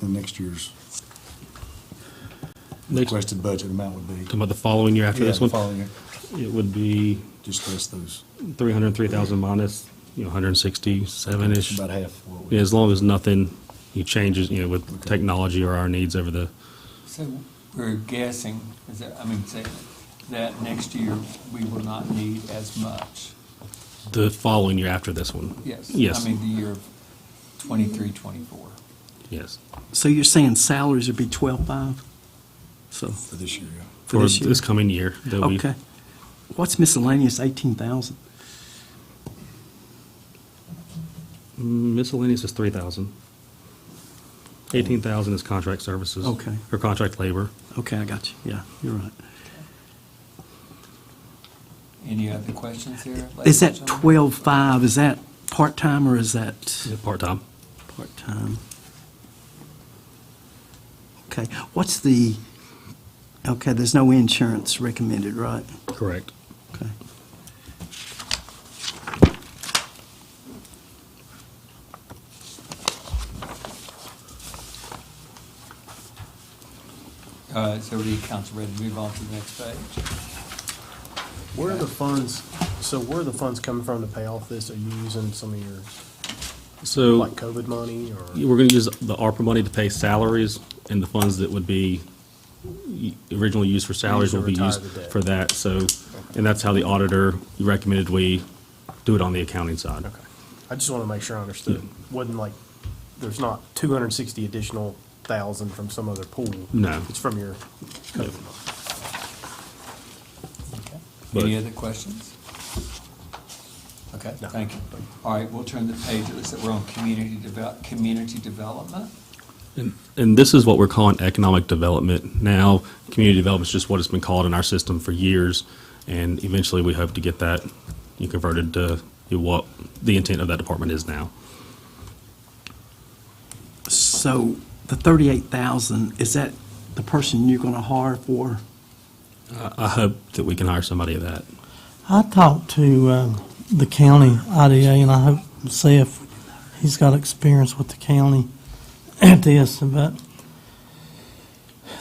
the next year's Next, talking requested budget amount would be. about the following year after Yeah, this one, Following year, it would be just list those, three hundred and three thousand minus, you know, hundred and sixty-seven-ish. about half of what we. Yeah, as long as nothing you changes, you know, with Okay. technology or our needs over the, So we're guessing, is that, I mean, say, that next year we will not need as much. the following year after this one. Yes. Yes, I mean, the year of twenty-three, twenty-four. yes. So you're saying salaries would be twelve-five? So, For this year, yeah. For For this year? this coming year. that we- okay. What's miscellaneous, eighteen thousand? Miscellaneous is three thousand. Eighteen thousand is contract services. Okay. Or contract labor. Okay, I got you, yeah, you're right. Any other questions there? ladies Is and that gentlemen? twelve-five, is that part-time or is that Part-time. part-time? Okay, what's the, okay, there's no insurance recommended, right? Correct. Okay. Uh, is everybody council ready to move on to the next page? Where are the funds, so where are the funds coming from to pay off this? Are you using some of your, So. like COVID money or? We're going to use the ARPA money to pay salaries, and the funds that would be originally used for salaries will be Retire used the debt. for that, so, and that's how the auditor recommended we do it on the accounting side. Okay. I just want to make sure I understood. Wasn't like, there's not two hundred and sixty additional thousand from some other pool? No. It's from your No. COVID money. Okay. But- Any other questions? Okay, No. thank you. All right, we'll turn the page, it looks like we're on community develop, community development. And this is what we're calling economic development now. Community development is just what it's been called in our system for years, and eventually we hope to get that converted to what the intent of that department is now. So the thirty-eight thousand, is that the person you're gonna hire for? I I hope that we can hire somebody at that. I talked to uh, the county IDA, and I hope to see if he's got experience with the county at this, but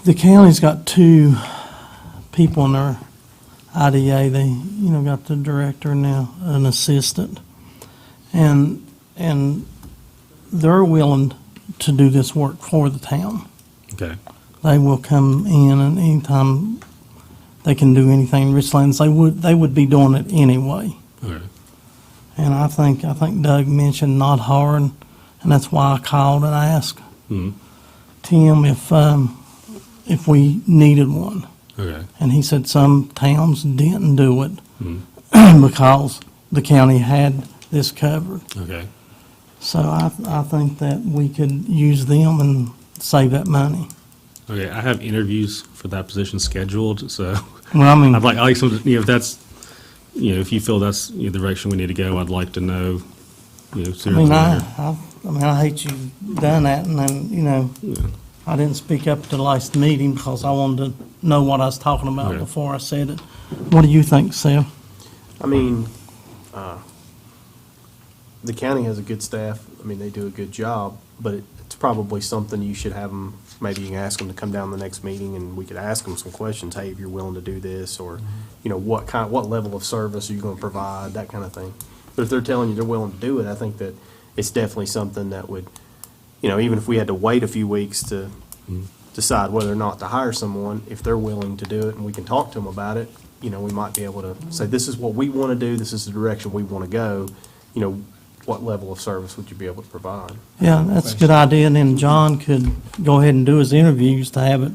the county's got two people in their IDA. They, you know, got the director and now an assistant. And, and they're willing to do this work for the town. Okay. They will come in and anytime they can do anything in Richlands, they would, they would be doing it anyway. Okay. And I think, I think Doug mentioned not hard, and that's why I called and asked Hmm. Tim if, um, if we needed one. Okay. And he said some towns didn't do it because the county had this covered. Okay. So I, I think that we could use them and save that money. Okay, I have interviews for that position scheduled, so Well, I mean, I'd like, I like some, you know, if that's, you know, if you feel that's you know, the direction we need to go, I'd like to know, you know, I sooner than mean, I, later. I, I mean, I hate you done that, and then, you know, I didn't speak up at the last meeting because I wanted to know what I was talking about Okay. before I said it. What do you think, Sam? I mean, uh, the county has a good staff. I mean, they do a good job, but it- it's probably something you should have them, maybe you can ask them to come down the next meeting and we could ask them some questions. Hey, if you're willing to do this, or, you know, what kind, what level of service are you gonna provide, that kind of thing. But if they're telling you they're willing to do it, I think that it's definitely something that would, you know, even if we had to wait a few weeks to Mm-hmm. decide whether or not to hire someone, if they're willing to do it and we can talk to them about it, you know, we might be able to say, this is what we want to do, this is the direction we want to go, you know, what level of service would you be able to provide? Yeah, that's a good idea, and then John could go ahead and do his interviews to have it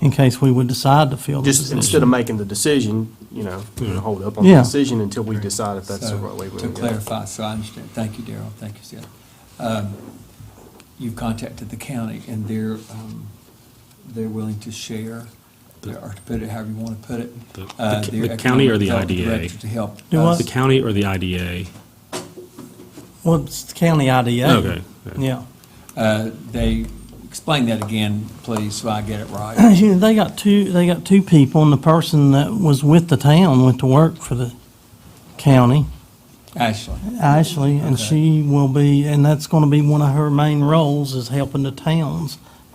in case we would decide to fill the Just instead position. of making the decision, you know, you know, hold up on Yeah. the decision until we decide if that's the So, right way we To want to go. clarify, so I understand, thank you, Daryl, thank you, Seth. Um, You've contacted the county, and they're, um, they're willing to share, or to put it however you want to put it. The- uh, the- their the county or the economic development IDA? director To help. Do us. what? The county or the IDA? Well, it's the county IDA. Okay, okay. Yeah. Uh, They, explain that again, please, so I get it right. You know, They got two, they got two people, and the person that was with the town went to work for the county. Ashley, Ashley, and Okay. she will be, and that's going to be one of her main roles is helping the towns